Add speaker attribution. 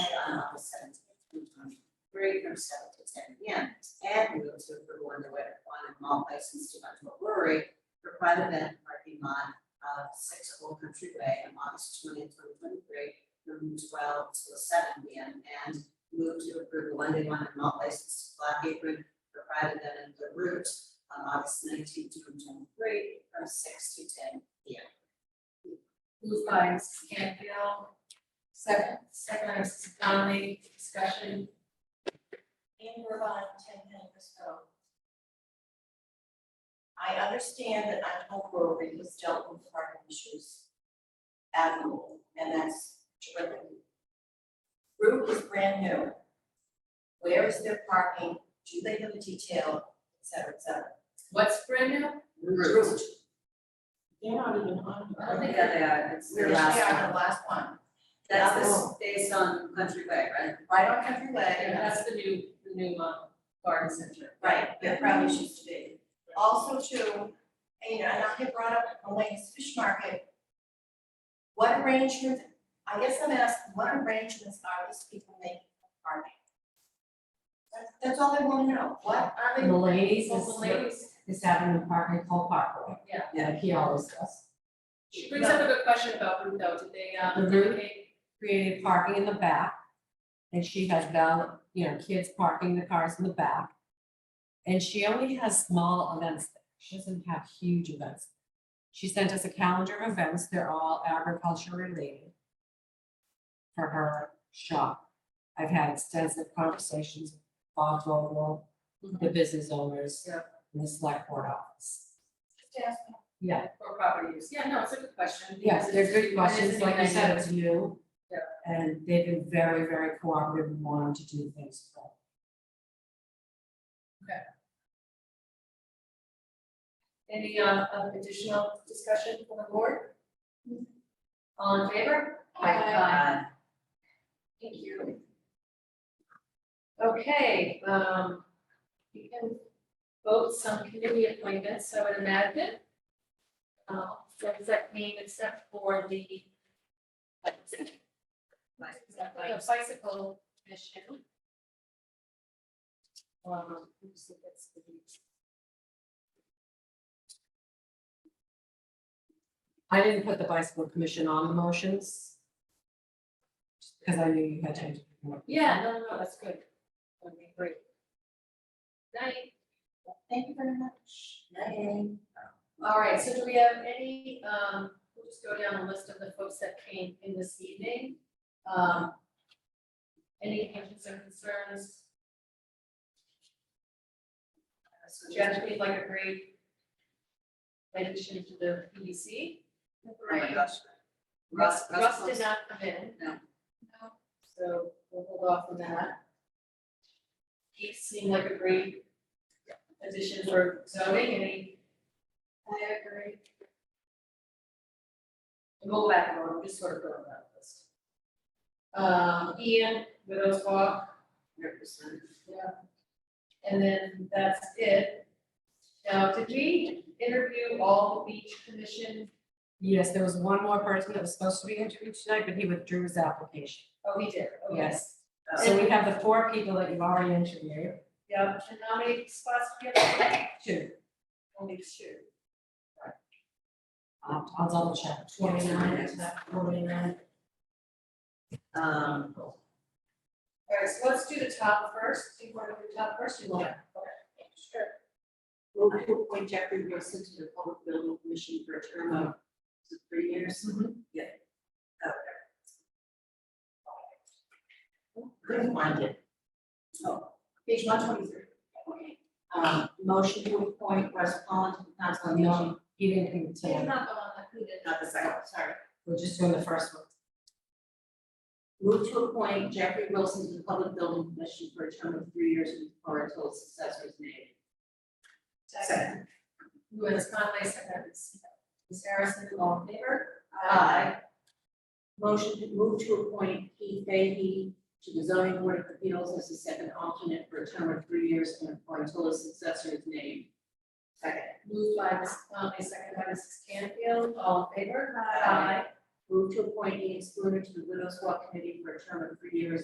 Speaker 1: three from seven to ten P M. And we will to approve one the wet one and malt license to Bunchville Brewery for private event parking lot of six Old Country Way on August 20th, 2023, from twelve to seven P M. And move to approve the one day one and malt license to Black Apron for private event in the route on August 19th, 2023, from six to ten P M.
Speaker 2: Moved by Mrs. Canfield, second, second by Mrs. Conley, discussion.
Speaker 3: in Irvine, ten minutes ago. I understand that I hope Rory was dealt with parking issues admirable, and that's terrific. Route is brand new. Where is their parking? Do they have a detail, et cetera, et cetera?
Speaker 2: What's brand new?
Speaker 1: Route.
Speaker 3: They're not even on.
Speaker 1: I don't think that they are, it's
Speaker 3: We're
Speaker 1: their
Speaker 3: they
Speaker 1: last
Speaker 3: are
Speaker 1: one.
Speaker 3: the last one,
Speaker 1: That's this, based on Country Way, right?
Speaker 3: right on Country Way,
Speaker 2: And that's the new, the new, um, garden center.
Speaker 3: Right, that probably used to be. Also too, and you know, and I had brought up Elaine's Fish Market. What arrangements, I guess I'm asking, what arrangements are these people making for parking? That's, that's all I wanna know, what are they?
Speaker 4: The ladies
Speaker 2: Well, the
Speaker 4: is,
Speaker 2: ladies,
Speaker 4: is having the park in Cole Parkway.
Speaker 2: Yeah.
Speaker 4: That he always does.
Speaker 2: she brings up a good question about who though, did they, uh,
Speaker 4: Mhm.
Speaker 2: relocate?
Speaker 4: Created parking in the back. And she has down, you know, kids parking the cars in the back. And she only has small events. there. She doesn't have huge events. She sent us a calendar of events. They're all agriculture related. For her shop. I've had extensive conversations with Bob Vogel, the business owners.
Speaker 2: Mm-hmm. Yeah.
Speaker 4: And the select board office.
Speaker 3: Just asking.
Speaker 4: Yeah.
Speaker 2: for property use? Yeah, no, it's a good question.
Speaker 4: Yes,
Speaker 2: because
Speaker 4: they're
Speaker 2: it's-
Speaker 4: good questions, like I said, it's new.
Speaker 2: Yeah.
Speaker 4: And they've been very, very cooperative and wanting to do things. well.
Speaker 2: Any, uh, um, additional discussion from the board? All in favor?
Speaker 1: Uh,
Speaker 2: Thank you. Okay, um, you can vote some committee appointments, I would imagine. Uh, so does that mean except for the the bicycle commission? Um, who's the best for these?
Speaker 4: I didn't put the bicycle commission on the motions. Because I knew you had to.
Speaker 2: Yeah, no, no, no, that's good. Okay, great. Night.
Speaker 3: Thank you very much.
Speaker 2: All right, so do we have any, um, we'll just go down the list of the folks that came in this evening. Um, any questions or concerns?
Speaker 1: so
Speaker 2: Jeff, we'd like a great addition to the PDC.
Speaker 1: Oh my gosh. Russ, Russ
Speaker 2: Russ did not come in.
Speaker 1: No.
Speaker 2: So we'll hold off on that. Keith seemed like a great addition for zoning, any? I agree. We'll go back more, we're just sort of going down the list. Um, Ian, Widows Walk,
Speaker 1: represented.
Speaker 2: and then that's it. Now, did we interview all the beach commission?
Speaker 4: Yes, there was one more person that was supposed to be interviewed tonight, but he withdrew his application.
Speaker 2: Oh, we did, okay.
Speaker 4: Yes.
Speaker 1: Oh.
Speaker 4: So we have the four people that you've already interviewed.
Speaker 2: Yeah, and how many spots do we have?
Speaker 4: Two.
Speaker 2: Only two.
Speaker 4: I'll Um, I'll double check. Twenty-nine, is that forty-nine?
Speaker 1: Um,
Speaker 2: All right, so let's do the top first. Do you want to do the top first? You want? Okay. Sure.
Speaker 5: Move to appoint Jeffrey Wilson to the Public Building Commission for a term of is it three years.
Speaker 3: Couldn't find it.
Speaker 5: Oh, Page one twenty-three. Um, motion to appoint Russ Pollen to the Council on Aging.
Speaker 4: He didn't come
Speaker 2: You're
Speaker 4: tonight.
Speaker 2: not the one that who did.
Speaker 5: Not the second, sorry.
Speaker 4: We're just doing the first one.
Speaker 5: Move to appoint Jeffrey Wilson to the Public Building Commission for a term of three years or until his successor is named.
Speaker 2: Second. Who is Conley, second is Ms. Harrison, all in favor?
Speaker 5: Aye. Motion to move to appoint Keith Fahey to the zoning board of appeals as the second alternate for a term of three years and or until his successor is named.
Speaker 2: Moved by Ms. Conley, second by Mrs. Canfield, all in favor?
Speaker 5: Aye. Move to appoint Ian Spooner to the Widows Walk Committee for a term of three years